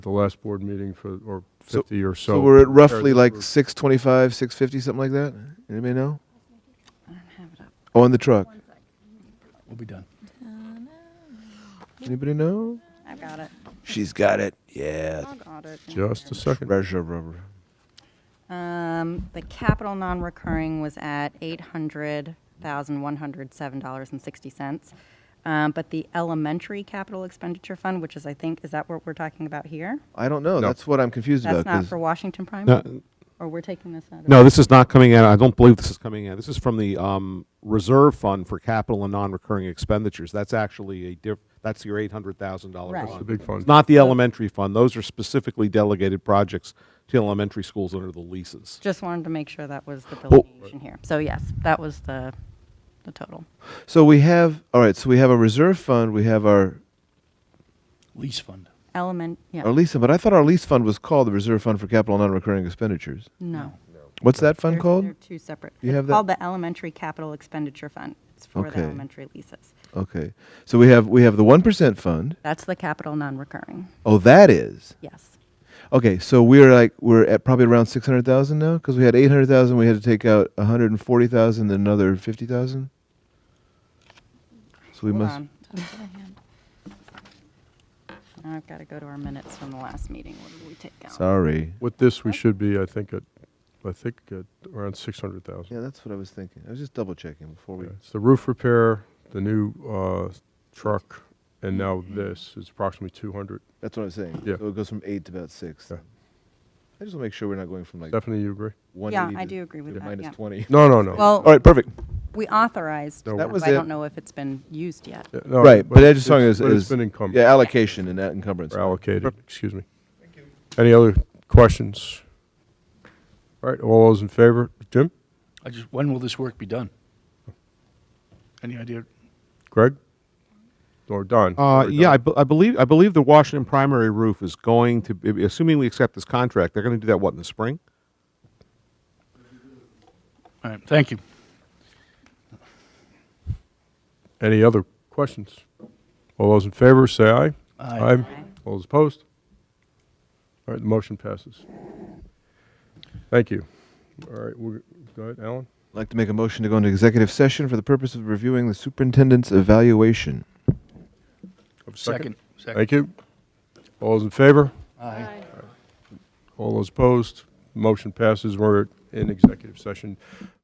the last board meeting for, or So- 50 or so. So we're at compared roughly to like for- six twenty-five, six fifty, something like that? Anybody know? Oh, on the truck. We'll be done. Anybody know? I got it. She's got it. Yeah. I got it. Just a second. Treasure rubber. Um, the capital non-recurring was at eight hundred thousand one hundred seven dollars and sixty cents. Um, but the elementary capital expenditure fund, which is, I think, is that what we're talking about here? I don't know. No. That's what I'm confused That's about. not 'cause- for Washington primary, No, or we're taking this out of? no, this is not coming out. I don't believe this is coming out. This is from the um, reserve fund for capital and non-recurring expenditures. That's actually a diff. That's your eight hundred thousand dollar Right. fund. That's the big fund. It's not the elementary fund. Those are specifically delegated projects to elementary schools under the leases. Just wanted to make sure that was the delineation here. So yes, that was the, the total. So we have, all right, so we have a reserve fund, we have our, Lease fund. Element, yeah. our lease, fund, but I thought our lease fund was called the Reserve Fund for Capital Non-Recurring Expenditures. No. What's that fund They're- called? They're two separate. You It's have that? Called the Elementary Capital Expenditure Fund. It's for the Okay. elementary leases. Okay. So we have, we have the 1% fund. That's the capital non-recurring, Oh, that is. yes. Okay, so we're like, we're at probably around 600,000 now? Because we had 800,000, we had to take out 140,000, then another 50,000? So we Hold must, on. Now I've got to go to our minutes from the last meeting. What did we take out? sorry. With this, we should be, I think, at, I think at around 600,000. Yeah, that's what I was thinking. I was just double checking before we. Okay. It's the roof repair, the new uh, truck, and now this is approximately 200. That's what I was saying. Yeah. So it goes from eight to about six. Yeah. I just want to make sure we're not going from like Stephanie, you agree? 180 I to- do agree with to that, minus yeah. 20. No, no, no. Well- All right, perfect. We authorized, No, but That was I it. don't know if it's been used yet. Yeah, no, right, but I just saw it it's- as- but as- it's been encumbered. Yeah, allocation and that encumbrance. or allocated, excuse me. Any other questions? All right, all those in favor? Jim? I just, when will this work be done? Any idea? Greg? Or Don? Uh, Sorry, yeah, I, Don. be- I believe I believe the Washington primary roof is going to, be, assuming we accept this contract, they're going to do that what in the spring. All right, thank you. Any other questions? All those in favor, say aye. Aye. All those opposed? All right, the motion passes. Thank you. All right, we're, go ahead, Alan. I'd like to make a motion to go into executive session for the purpose of reviewing the superintendent's evaluation. Have a Second. Second. Thank you. All those in favor? Aye. All those opposed? Motion passes. We're in executive session.